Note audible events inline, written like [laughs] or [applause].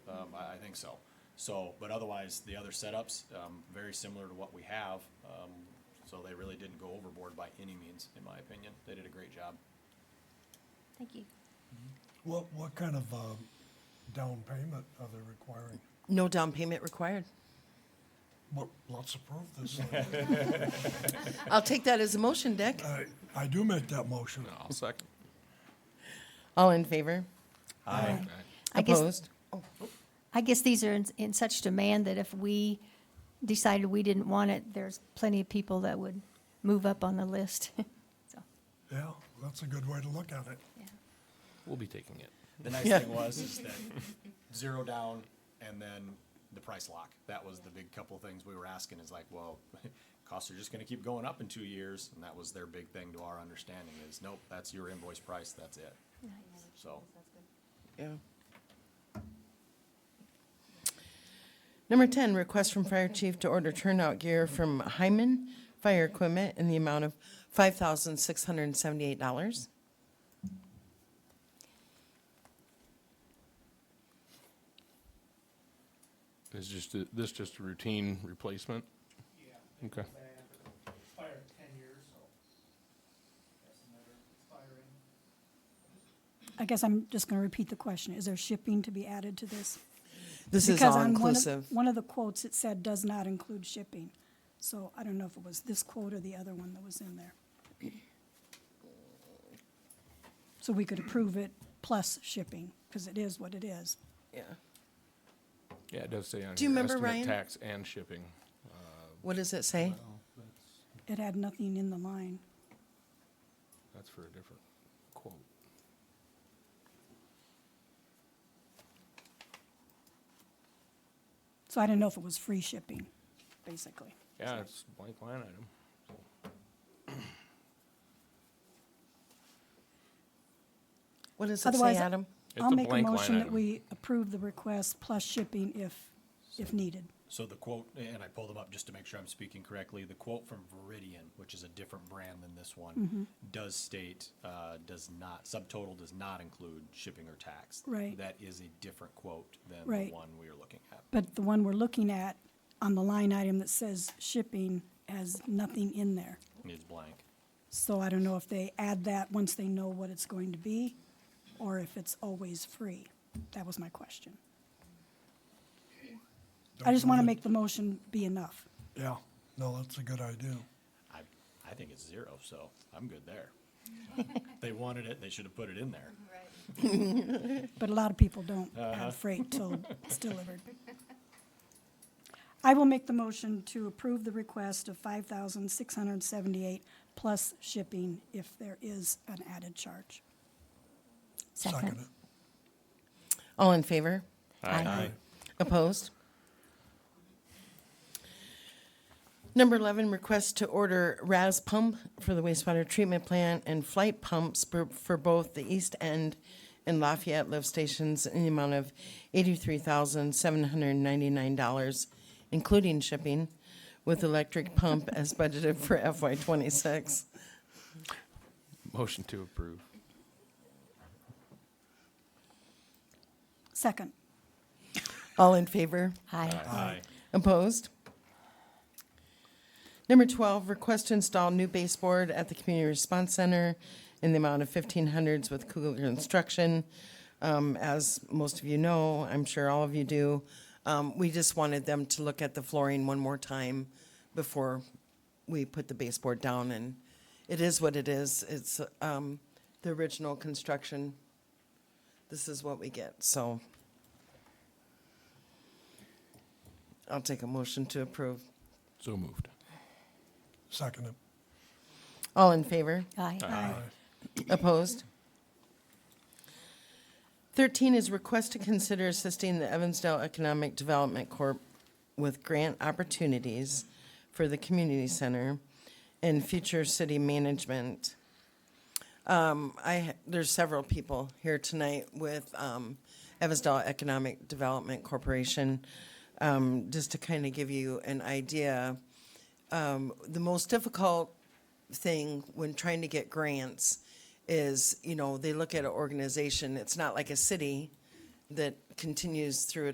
Um, think so. So, but otherwise, the other setups, um, very similar to what we have, um, so they really didn't go overboard by any means, in my opinion. They did a great job. Thank you. What, what kind of, um, down payment are they requiring? No down payment required. What, let's approve [laughs] this. thing. I'll take that as a motion, Dick. I, I do make that motion. I'll second. All in favor? Aye. I guess- Opposed? I guess these are in, in such demand that if we decided we didn't want it, there's plenty of people that would move up on the list. [laughs] So, Yeah, that's a good way to look at it. yeah. We'll be taking it. The nice thing was is that zero down and then the price lock. That was the big couple of things we were asking is like, well, [laughs] costs are just gonna keep going up in two years. And that was their big thing to our understanding is, nope, that's your invoice price, that's it. So, Yeah. Number 10, request from Fire Chief to order turnout gear from Hyman Fire Equipment in the amount of $5,678. Is just, a- this just a routine replacement? Yeah. Okay. Fire ten years, so that's another firing. I guess I'm just going to repeat the question. Is there shipping to be added to this? This is Because all on one of- inclusive. One of the quotes, it said does not include shipping. So I don't know if it was this quote or the other one that was in there. So we could approve it plus shipping, because it is what it is. Yeah. Yeah, it does say on Do you here, remember, estimate Ryan? Tax and shipping. What does it say? It had nothing in the line. That's for a different quote. So I didn't know if it was free shipping, basically. Yeah, it's blank line item. What does it say, Otherwise, Adam? It's I'll a make a blank line motion that item. we approve the request plus shipping if, if needed. so the quote, and I pulled them up just to make sure I'm speaking correctly. The quote from Veridian, which is a different brand than this Mm-hmm. one, does state, uh, does not, subtotal does not include shipping or tax. Right. That is a different quote than Right. the one we are looking at. But the one we're looking at on the line item that says shipping has nothing in there. It's blank. So I don't know if they add that once they know what it's going to be or if it's always free. That was my question. I just want to make the motion be enough. Yeah, no, that's a good idea. I, I think it's zero, so I'm good there. They wanted it, they should have put it in there. But a lot of people don't add freight till it's delivered. I will make the motion to approve the request of five thousand six hundred and seventy-eight plus shipping if there is an added charge. Second it. All in favor? Aye. Opposed? Number 11, request to order RAS pump for the wastewater treatment plant and flight pumps for- for both the East End and Lafayette lift stations in the amount of $83,799, including shipping, with electric pump as budgeted for FY '26. Motion to approve. Second, All in favor? Aye. Uh, Aye. Opposed? Number 12, request to install new baseboard at the Community Response Center in the amount of 1500s with Kugler Instruction. Um, As most of you know, I'm sure all of you do, um, we just wanted them to look at the flooring one more time before we put the baseboard down, and it is what it is. It's um, the original construction. This is what we get, so I'll take a motion to approve. So moved. Second it. All in favor? Aye. Opposed? Thirteen is request to consider assisting the Evansdale Economic Development Corp. with grant opportunities for the community center and future city management. Um, I, there's several people here tonight with, um, Evansdale Economic Development Corporation. Um, just to kind of give you an idea, um, the most difficult thing when trying to get grants is, you know, they look at an organization, it's not like a city that continues through a